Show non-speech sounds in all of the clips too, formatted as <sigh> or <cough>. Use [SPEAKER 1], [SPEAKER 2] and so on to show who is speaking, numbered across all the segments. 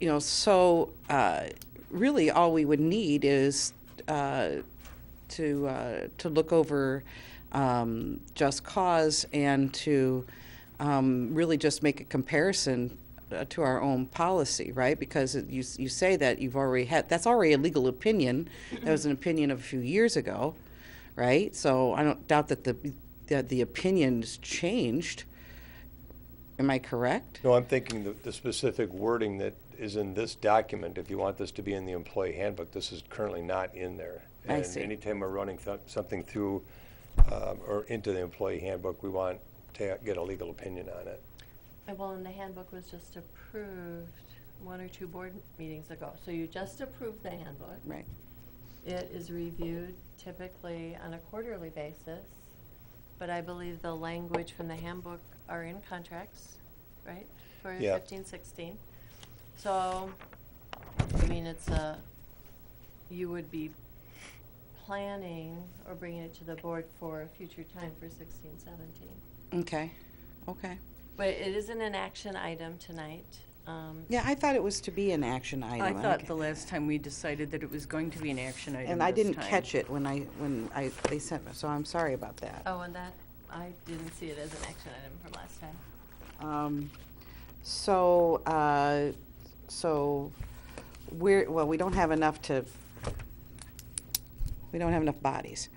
[SPEAKER 1] you know, so uh, really all we would need is uh, to uh, to look over um, just cause and to um, really just make a comparison uh, to our own policy, right? Because it- you you say that you've already had that's already a legal opinion. That was an opinion of a few years ago, right? So I don't doubt that the that the opinion's changed. Am I correct?
[SPEAKER 2] No, I'm thinking the, the specific wording that is in this document, if you want this to be in the employee handbook, this is currently not in there.
[SPEAKER 1] I
[SPEAKER 2] And
[SPEAKER 1] see.
[SPEAKER 2] Anytime we're running th- something through, um, or into the employee handbook, we want to get a legal opinion on it.
[SPEAKER 3] Uh, Well, and the handbook was just approved one or two board meetings ago. So you just approved the handbook.
[SPEAKER 1] Right.
[SPEAKER 3] It is reviewed typically on a quarterly basis, but I believe the language from the handbook are in contracts, right? For
[SPEAKER 2] Yeah.
[SPEAKER 3] fifteen, sixteen. So, I mean, it's a, you would be planning or bringing it to the board for a future time for sixteen, seventeen.
[SPEAKER 1] Okay. Okay.
[SPEAKER 3] But it isn't an action item tonight. um,
[SPEAKER 1] Yeah, I thought it was to be an action item.
[SPEAKER 4] I thought
[SPEAKER 1] don't-
[SPEAKER 4] the last time we decided that it was going to be an action item
[SPEAKER 1] And I
[SPEAKER 4] this
[SPEAKER 1] didn't
[SPEAKER 4] time.
[SPEAKER 1] catch it when I, when I, they sent me, so I'm sorry about that.
[SPEAKER 3] Oh, and that, I didn't see it as an action item from last time.
[SPEAKER 1] Um, So, uh, so we're, well, we don't have enough to, we don't have enough bodies.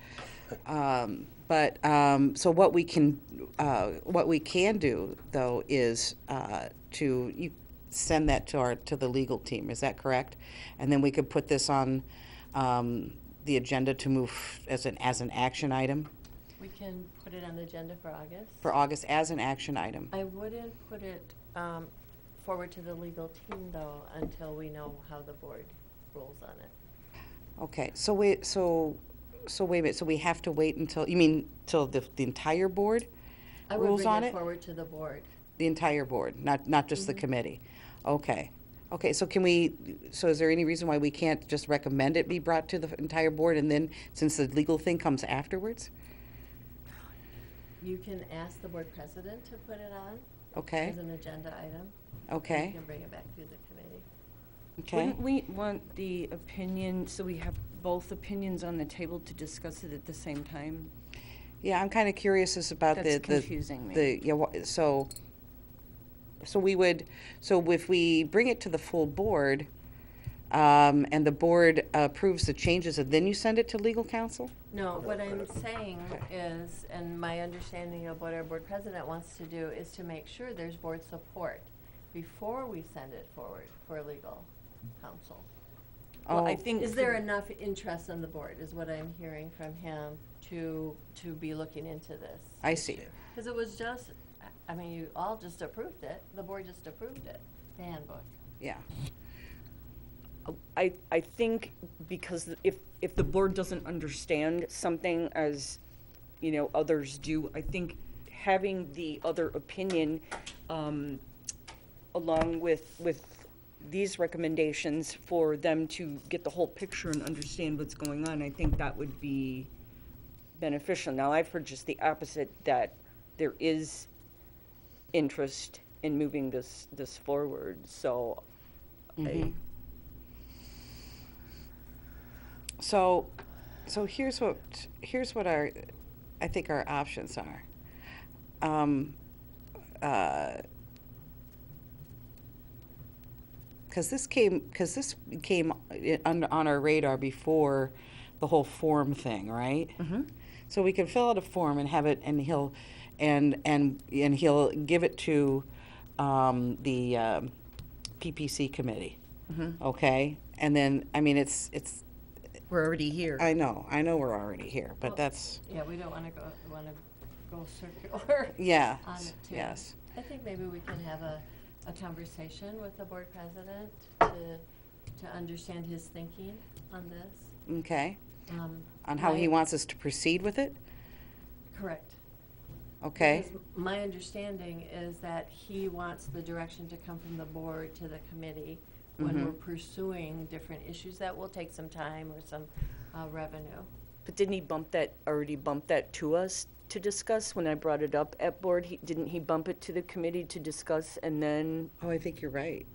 [SPEAKER 1] Um, But, um, so what we can, uh, what we can do, though, is uh, to, you send that to our, to the legal team, is that correct? And then we could put this on um, the agenda to move as an, as an action item
[SPEAKER 3] We can put it on the agenda for August.
[SPEAKER 1] for August, as an action item?
[SPEAKER 3] I wouldn't put it um, forward to the legal team, though, until we know how the board rules on it.
[SPEAKER 1] Okay, so wait, so, so wait a minute, so we have to wait until, you mean, till the, the entire board?
[SPEAKER 3] I would
[SPEAKER 1] Rules on
[SPEAKER 3] bring
[SPEAKER 1] it?
[SPEAKER 3] it forward to the board.
[SPEAKER 1] The entire board, not, not just the committee? Okay, okay, so can we, so is there any reason why we can't just recommend it be brought to the entire board and then, since the legal thing comes afterwards?
[SPEAKER 3] You can ask the board president to put it on
[SPEAKER 1] Okay,
[SPEAKER 3] as an agenda item. You
[SPEAKER 1] okay,
[SPEAKER 3] can bring it back to the committee.
[SPEAKER 1] okay,
[SPEAKER 4] Wouldn't we want the opinion, so we have both opinions on the table to discuss it at the same time?
[SPEAKER 1] yeah, I'm kinda curious as about the, the.
[SPEAKER 4] That's confusing me.
[SPEAKER 1] The, yeah, wha- so, so we would, so if we bring it to the full board, um, and the board approves the changes, and then you send it to legal counsel?
[SPEAKER 3] No, what I'm saying is, and my understanding of what our board president wants to do is to make sure there's board support before we send it forward for legal counsel.
[SPEAKER 4] Well, I
[SPEAKER 1] Oh.
[SPEAKER 4] think.
[SPEAKER 3] Is there
[SPEAKER 4] for-
[SPEAKER 3] enough interest on the board, is what I'm hearing from him, to, to be looking into this?
[SPEAKER 1] I see.
[SPEAKER 3] Because it was just, I- I mean, you all just approved it, the board just approved it, the handbook.
[SPEAKER 1] Yeah,
[SPEAKER 4] I, I think because if, if the board doesn't understand something as, you know, others do, I think having the other opinion, um, along with, with these recommendations for them to get the whole picture and understand what's going on, I think that would be beneficial. Now, I've heard just the opposite, that there is interest in moving this, this forward, so I,
[SPEAKER 1] so, so here's what, here's what our, I think our options are. Um, uh, because this came because this came i- on, on our radar before the whole form thing, right? Mm-hmm. So we can fill out a form and have it, and he'll and and and he'll give it to um, the um, PPC committee. Okay, and then I mean it's it's
[SPEAKER 4] We're already here.
[SPEAKER 1] I know I know we're already here, but
[SPEAKER 3] Well-
[SPEAKER 1] that's
[SPEAKER 3] Yeah, we don't want to go, want to go <laughs> circular.
[SPEAKER 1] yeah
[SPEAKER 3] on it too.
[SPEAKER 1] yes
[SPEAKER 3] I think maybe we can have a, a conversation with the board president to, to understand his thinking on this.
[SPEAKER 1] okay
[SPEAKER 3] um,
[SPEAKER 1] on how he
[SPEAKER 3] my-
[SPEAKER 1] wants us to proceed with it.
[SPEAKER 3] Correct.
[SPEAKER 1] Okay,
[SPEAKER 3] Because My understanding is that he wants the direction to come from the board to the committee
[SPEAKER 1] Mm-hmm.
[SPEAKER 3] when we're pursuing different issues that will take some time or some uh, revenue.
[SPEAKER 4] But didn't he bump that, already bump that to us to discuss when I brought it up at board? He, didn't he bump it to the committee to discuss and then,
[SPEAKER 1] oh I think you're right.